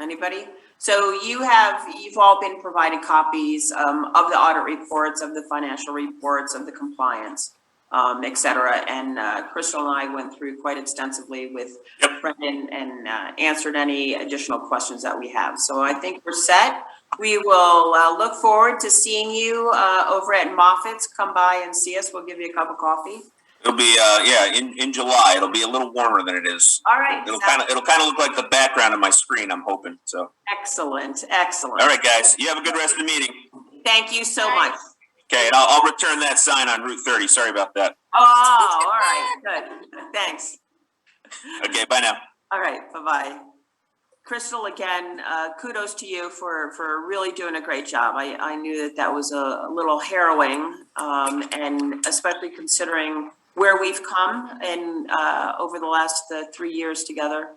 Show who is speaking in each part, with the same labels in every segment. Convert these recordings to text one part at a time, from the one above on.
Speaker 1: Anybody? So you have, you've all been provided copies um, of the audit reports, of the financial reports, of the compliance, um, et cetera. And uh, Crystal and I went through quite extensively with
Speaker 2: Yep.
Speaker 1: Brendan and uh, answered any additional questions that we have. So I think we're set. We will uh, look forward to seeing you uh, over at Moffitt's. Come by and see us. We'll give you a cup of coffee.
Speaker 2: It'll be, uh, yeah, in, in July, it'll be a little warmer than it is.
Speaker 1: All right.
Speaker 2: It'll kind of, it'll kind of look like the background of my screen, I'm hoping, so.
Speaker 1: Excellent, excellent.
Speaker 2: All right, guys, you have a good rest of the meeting.
Speaker 1: Thank you so
Speaker 3: All right.
Speaker 1: much.
Speaker 2: Okay, and I'll, I'll return that sign on Route thirty, sorry about that.
Speaker 1: Oh, all right, good. Thanks.
Speaker 2: Okay, bye now.
Speaker 1: All right, bye-bye. Crystal, again, uh, kudos to you for, for really doing a great job. I, I knew that that was a little harrowing, um, and especially considering where we've come and, uh, over the last, uh, three years together.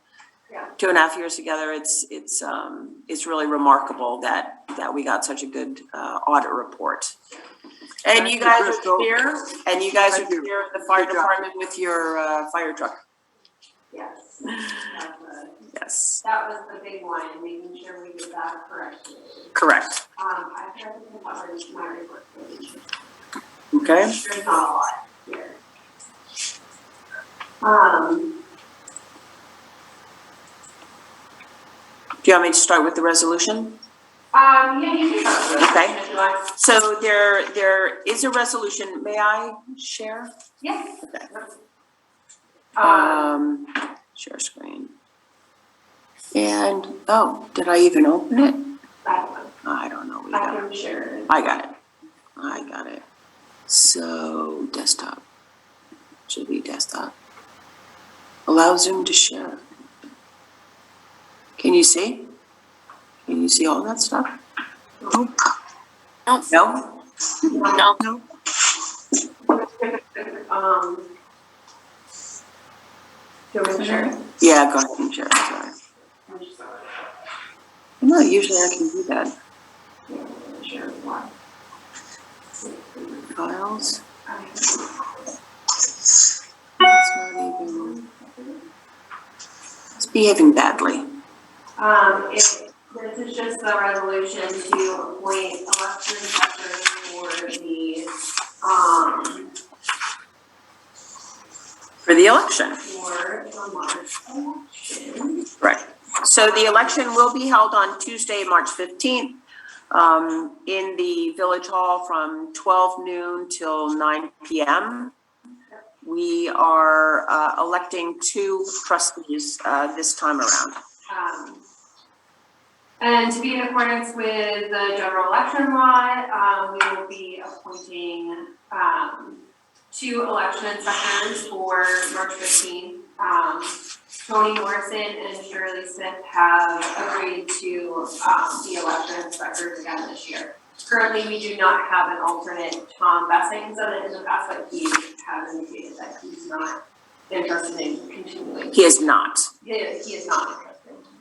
Speaker 3: Yeah.
Speaker 1: Two and a half years together, it's, it's, um, it's really remarkable that, that we got such a good, uh, audit report. And
Speaker 4: Thank
Speaker 1: you
Speaker 4: you,
Speaker 1: guys are
Speaker 4: Crystal.
Speaker 1: here, and you guys are
Speaker 4: Thank you.
Speaker 1: here at the fire
Speaker 4: Good job.
Speaker 1: department with your, uh, fire truck,
Speaker 3: Yes. That was-
Speaker 1: yes,
Speaker 3: That was the big one, and making sure we did that correctly.
Speaker 1: correct.
Speaker 3: Um, I tried to cover my report. page.
Speaker 1: Okay.
Speaker 3: There's not a lot here. Um,
Speaker 1: Do you want me to start with the resolution?
Speaker 3: um, yeah, you can.
Speaker 1: Okay. So there, there is a resolution, may I share?
Speaker 3: Yes.
Speaker 1: Okay.
Speaker 3: Um,
Speaker 1: Um, share screen. And, oh, did I even open it?
Speaker 3: that one,
Speaker 1: I don't know, we
Speaker 3: I
Speaker 1: got,
Speaker 3: can share.
Speaker 1: I got it, I got it. So desktop, should be desktop. Allow Zoom to share. Can you see? Can you see all that stuff? Mm-hmm. No?
Speaker 3: No. Um. Do we share?
Speaker 1: Yeah, go ahead and share, sorry.
Speaker 3: I'm just sorry.
Speaker 1: No, usually I can do that.
Speaker 3: Yeah, Share one.
Speaker 1: Files,
Speaker 3: I-
Speaker 1: it's not even, it's behaving badly.
Speaker 3: Um, it, this is just the resolution to appoint election inspectors for the, um,
Speaker 1: For the election.
Speaker 3: for the March election.
Speaker 1: Right. So the election will be held on Tuesday, March fifteenth, um, in the village hall from twelve noon till nine P M. We are, uh, electing two trustees, uh, this time around.
Speaker 3: Um, and to be in accordance with the general election law, um, we will be appointing, um, two election inspectors for March fifteenth. Um, Tony Morrison and Shirley Smith have agreed to, um, be election inspectors again this year. Currently, we do not have an alternate. Tom Bessing's done it in the past, but he has indicated that he's not interested in continuing.
Speaker 1: He is not.
Speaker 3: He is, he is not interested.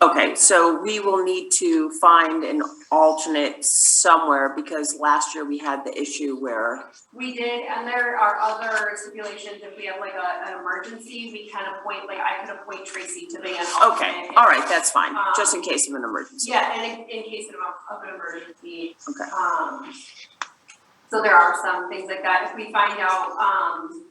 Speaker 1: Okay, so we will need to find an alternate somewhere because last year we had the issue where,
Speaker 3: We did, and there are other stipulations, if we have like a, an emergency, we can appoint, like I could appoint Tracy to be an
Speaker 1: okay,
Speaker 3: alternate.
Speaker 1: all right, that's fine, just in case of an emergency.
Speaker 3: Yeah, and in, in case of, of an emergency.
Speaker 1: Okay.
Speaker 3: Um, so there are some things like that, if we find out, um,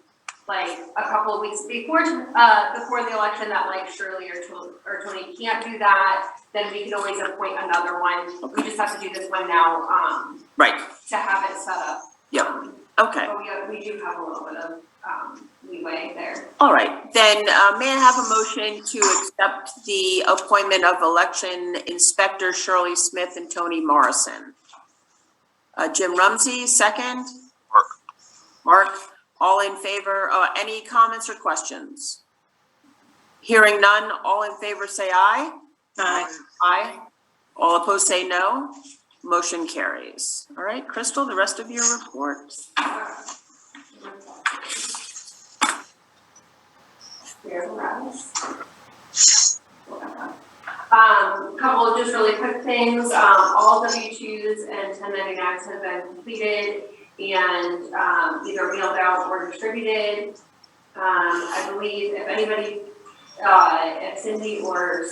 Speaker 3: like a couple of weeks before, uh, before the election that like Shirley or Tony, or Tony can't do that, then we can always appoint another one, we just have to do this one now, um,
Speaker 1: Right,
Speaker 3: to have it set up.
Speaker 1: Yep.
Speaker 3: Um,
Speaker 1: okay,
Speaker 3: But we, we do have a little bit of, um, leeway there.
Speaker 1: all right. Then, uh, may I have a motion to accept the appointment of election inspector Shirley Smith and Tony Morrison? Uh, Jim Rumsey, second?
Speaker 2: Mark.
Speaker 1: Mark, all in favor, uh, any comments or questions? Hearing none, all in favor say aye? Aye. All opposed say no. Motion carries. All right, Crystal, the rest of your report.
Speaker 3: Here, Russ. Um, couple of just really quick things, um, all W twos and ten ninety nines have been completed and, um, either mailed out or distributed. Um, I believe if anybody, uh, if Cindy or